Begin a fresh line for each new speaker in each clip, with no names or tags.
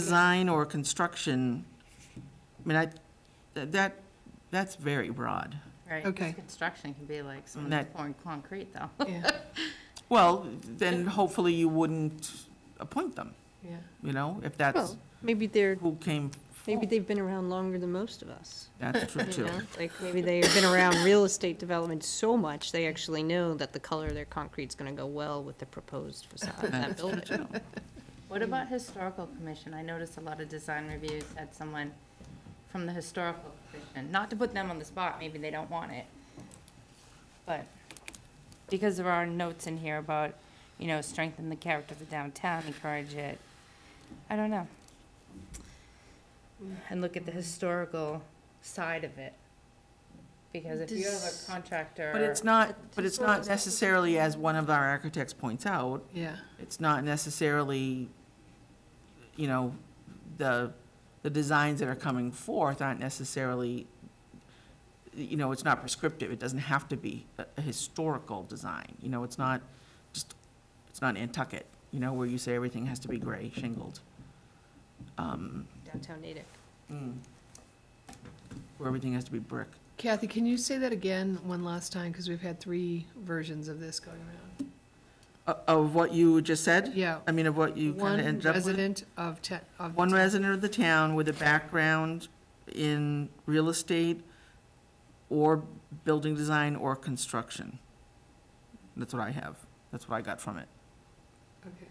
design or construction, I mean, I, th- that, that's very broad.
Right, 'cause
Okay.
construction can be like someone's
That-
pouring concrete though.
Yeah,
Well, then hopefully you wouldn't appoint them,
yeah.
you know, if that's
Well, maybe they're,
who came,
maybe they've been around longer than most of us,
that's true
you
too.
know? Like, maybe they have been around real estate development so much, they actually know that the color of their concrete's gonna go well with the proposed facade of that
That's true,
building.
too.
What about historical commission? I noticed a lot of design reviews had someone from the historical commission, not to put them on the spot, maybe they don't want it. But, because there are notes in here about, you know, strengthen the character of the downtown, encourage it. I don't know. And look at the historical side of it. Because if you have a contractor.
But it's not, but it's not necessarily, as one of our architects points out,
Yeah,
it's not necessarily, you know, the, the designs that are coming forth aren't necessarily, you know, it's not prescriptive, it doesn't have to be a a historical design, you know, it's not just, it's not Nantucket, you know, where you say everything has to be gray shingled. Um,
Downtown Natick.
Where everything has to be brick.
Kathy, can you say that again one last time, because we've had three versions of this going around?
O- Uh, Of what you just said?
Yeah.
I mean, of what you kind of
One
ended up with?
resident of te- of. the
One
town.
resident of the town with a background in real estate or building design or construction. That's what I have. That's what I got from it.
Okay.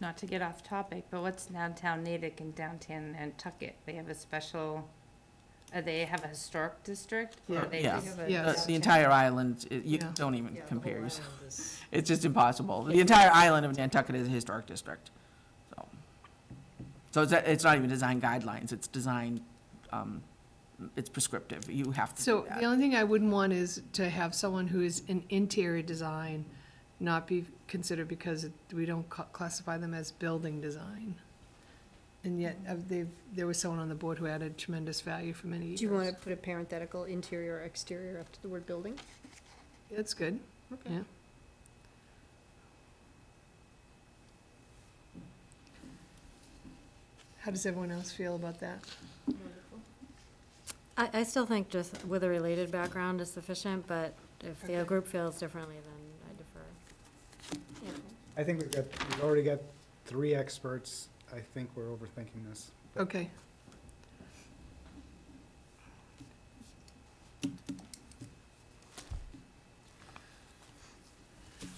Not to get off topic, but what's downtown Natick and downtown Nantucket? They have a special, uh, they have a historic district? or
Yeah.
they
Yeah.
just have a
Uh,
Yes.
The entire island, it- you
Yeah.
don't even compare yourself. It's just impossible. The entire island of Nantucket is a historic district, so. So it's, it's not even design guidelines, it's design, um, it's prescriptive. You have to do
So the
that.
only thing I wouldn't want is to have someone who is in interior design not be considered because it- we don't ca- classify them as building design. And yet, uh, they've, there was someone on the board who added tremendous value for many years.
Do you wanna put a parenthetical interior or exterior after the word building?
That's good.
Okay.
Yeah. How does everyone else feel about that?
I, I still think just with a related background is sufficient, but if the group feels differently, then I defer.
I think we've got, we've already got three experts. I think we're overthinking this.
Okay.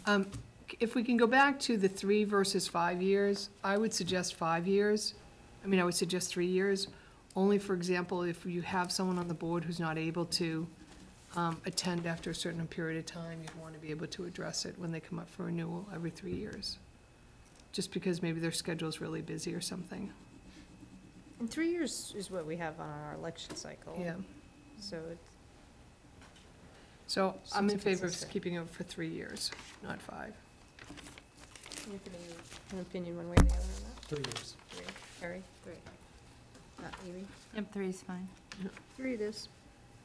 Um, c- If we can go back to the three versus five years, I would suggest five years. I mean, I would suggest three years, only for example, if you have someone on the board who's not able to um, attend after a certain period of time, you'd want to be able to address it when they come up for renewal every three years. Just because maybe their schedule's really busy or something,
And three years is what we have on our election cycle.
yeah.
So it's,
So I'm
Seems
in favor of
consistent.
keeping it for three years, not five.
you have an opinion one way or the other on that?
Three years.
Three. Harry? Three. Not Amy?
Yep, three is fine.
Three it is.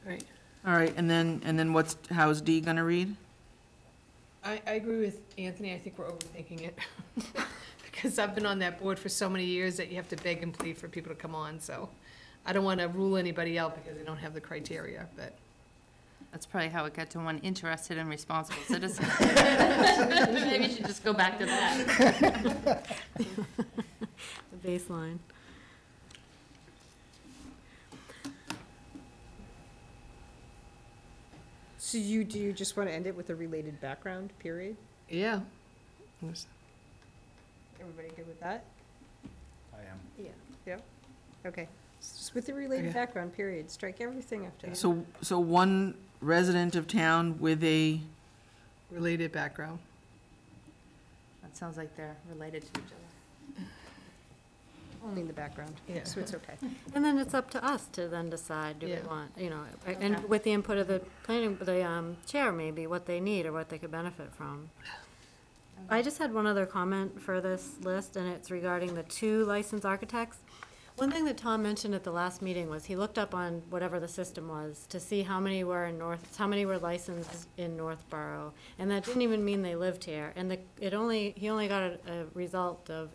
Right.
All right, and then, and then what's, how's D gonna read?
I, I agree with Anthony, I think we're overthinking it. Because I've been on that board for so many years that you have to beg and plead for people to come on, so I don't want to rule anybody out because they don't have the criteria, but.
That's probably how it got to one interested and responsible citizen. Maybe you should just go back to that.
The baseline.
So you, do you just wanna end it with a related background, period?
Yeah.
Everybody good with that?
I am.
Yeah. Yep, okay. It's Just with the related
Okay.
background, period, strike everything after that.
So, so one resident of town with a
Related background.
That sounds like they're related to each other.
Only in the background,
Yeah.
so it's okay.
And then it's up to us to then decide, do we
Yeah.
want, you know, and
Okay.
with the input of the planning, the, um, chair maybe, what they need or what they could benefit from. I just had one other comment for this list, and it's regarding the two licensed architects. One thing that Tom mentioned at the last meeting was he looked up on whatever the system was to see how many were in North, how many were licensed in Northborough. And that didn't even mean they lived here. And the, it only, he only got a, a result of